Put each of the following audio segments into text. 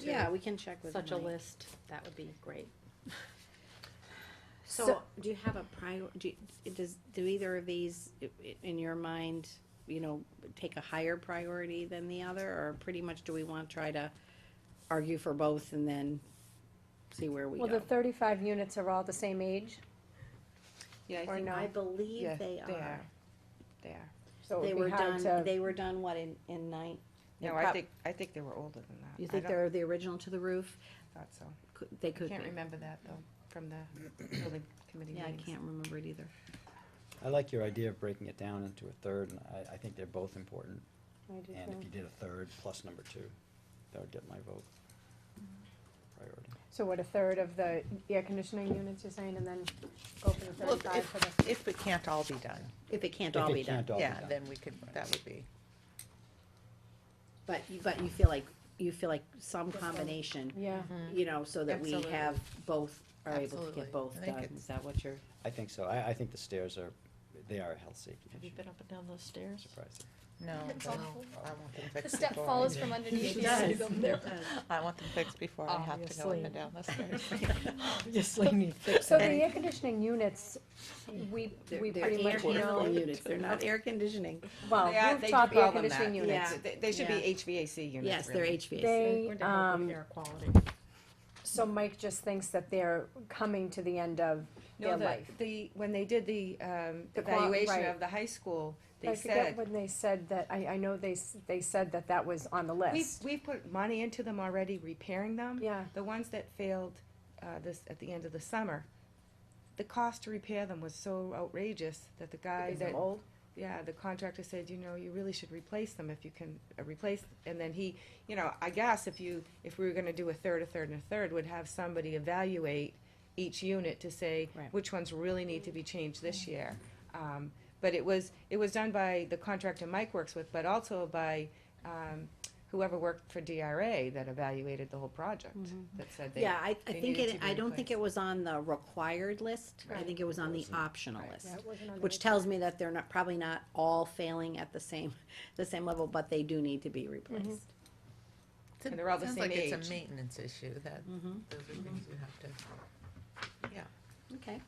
Yeah, we can check with such a Mike. list, that would be great. So, do you have a prior, do, you- does, do either of these, i- i- in your mind, you know, take a higher priority than the other, or pretty much do we want to try to argue for both and then see where we Well, the go? thirty-five units are all the same age, Yeah, or no? I believe Yeah, they they are. They are. So They it would were be hard done, to, they were done, what, in, in nine? No, I think, I think they were older than that. You I think don't- they're the original to the roof? Thought so. Could- They I could can't be. remember that though, from the building committee Yeah, I meetings. can't remember it either. I like your idea of breaking it down into a third, and I, I think they're both important. And if you did a third plus number two, that would get my vote. Priority. so what, a third of the air conditioning units you're saying, and then go for the Well, if- thirty-five for the, If it can't all be done, If it can't If all it be done. can't all be yeah, done. then we could, that would be, But, you- but you feel like, you feel like some combination, yeah. you know, so that we Absolutely. have both, are able to Absolutely. get both I think done, it's- is that what you're? I think so. I, I think the stairs are, they are a health safety Have you issue. been up and down those stairs? Surprised. no, It's no, awful. I want them fixed. The step before I falls do. from underneath you. does. You go there. I want them fixed before I have to go up Obviously. and down the stairs. Obviously need So fixing. the air conditioning units, we, They're- we they're pretty air much handling know, units, they're not air conditioning. well, They are- they rooftop call air them that. conditioning units. Yeah. They- They should be HVAC units. Yes, they're really. HVAC. They, We're to help with um, air quality. so Mike just thinks that they're coming to the end of No, their the, life. the, when they did the, um, The qua- evaluation right. of the high school, I they forget said, when they said that, I, I know they, s- they said that that was on the we've, list, we've put money into them already, repairing them. yeah. The ones that failed, uh, this, at the end of the summer, the cost to repair them was so outrageous that the guy Is that it old? yeah, the contractor said, you know, you really should replace them if you can uh, replace, and then he, you know, I guess if you, if we were gonna do a third, a third, and a third, would have somebody evaluate each unit to say Right. which ones really need to be changed this year. Um, but it was, it was done by the contractor Mike works with, but also by, um, whoever worked for DRA that evaluated the whole project, that said they. Yeah, I, I they think needed it, to be I don't think it replaced. was on the required list, I think it was on the optional list. Yeah, it wasn't on the Which list. tells me that they're not, probably not all failing at the same, the same level, but they do need to be replaced. And they're all the Sounds same like it's age. a maintenance issue that, those are things you have to. Okay.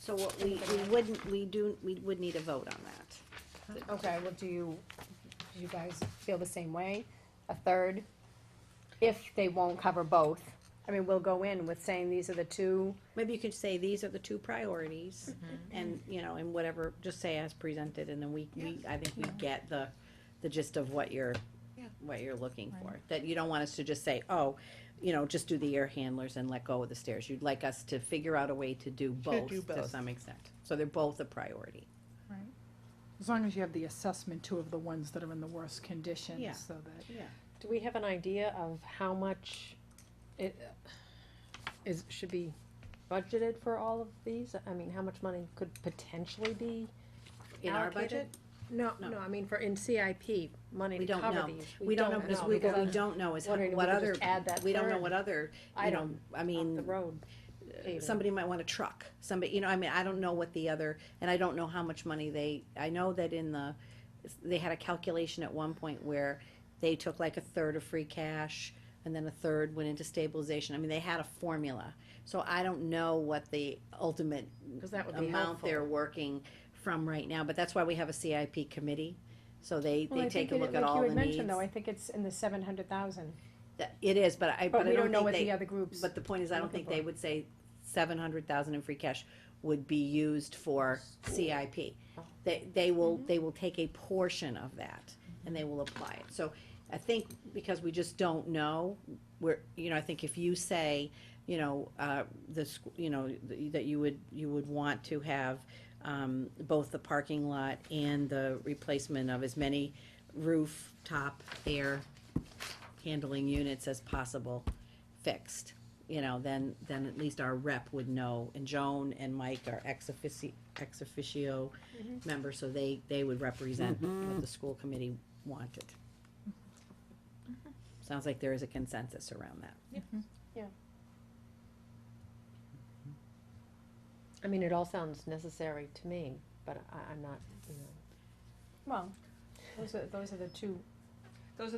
So what we, we wouldn't, we do, we would need a vote on that. Okay, well, do you, do you guys feel the same way? A third? If they won't cover both, I mean, we'll go in with saying these are the two, Maybe you could say, these are the two priorities, and, you know, and whatever, just say as presented, and then we, we, I think we get the, the gist of what you're, Yeah. what you're looking for. That you don't want us to just say, oh, you know, just do the air handlers and let go of the stairs. You'd like us to figure out a way to do both do to both. some extent. So they're both a priority. As long as you have the assessment too of the ones that are in the worst condition, Yeah. so that. Yeah. Do we have an idea of how much it uh, is, should be budgeted for all of these? I mean, how much money could potentially be In our allocated? budget, No, No. no, I mean, for in CIP, money we to don't cover know. these. We don't know, because we, what we because don't know is wondering if what we could other, just add that we don't know third what other, you know, item I off mean. the road. paving. somebody might want a truck, somebody, you know, I mean, I don't know what the other, and I don't know how much money they, I know that in the, they had a calculation at one point where they took like a third of free cash, and then a third went into stabilization, I mean, they had a formula. So I don't know what the ultimate 'Cause that would be amount helpful. they're working from right now, but that's why we have a CIP committee, so they, well, they I take think, a it- look at like you all the had needs. mentioned though, I think it's in the seven hundred thousand. That- It is, but I, But but I we don't know don't what think they, the other groups. but the point is, I don't think they would say seven hundred thousand in free cash would be used for CIP. They, they will, they will take a portion of that and they will apply it. So I think because we just don't know, we're, you know, I think if you say, you know, uh, the, sch- you know, th- that you would, you would want to have, um, both the parking lot and the replacement of as many rooftop air handling units as possible fixed, you know, then, then at least our rep would know, and Joan and Mike are ex officio, ex officio members, so they, they would represent what the school committee wanted. Sounds like there is a consensus around that. I mean, it all sounds necessary to me, but I, I'm not, you know. Well, those are, those are the two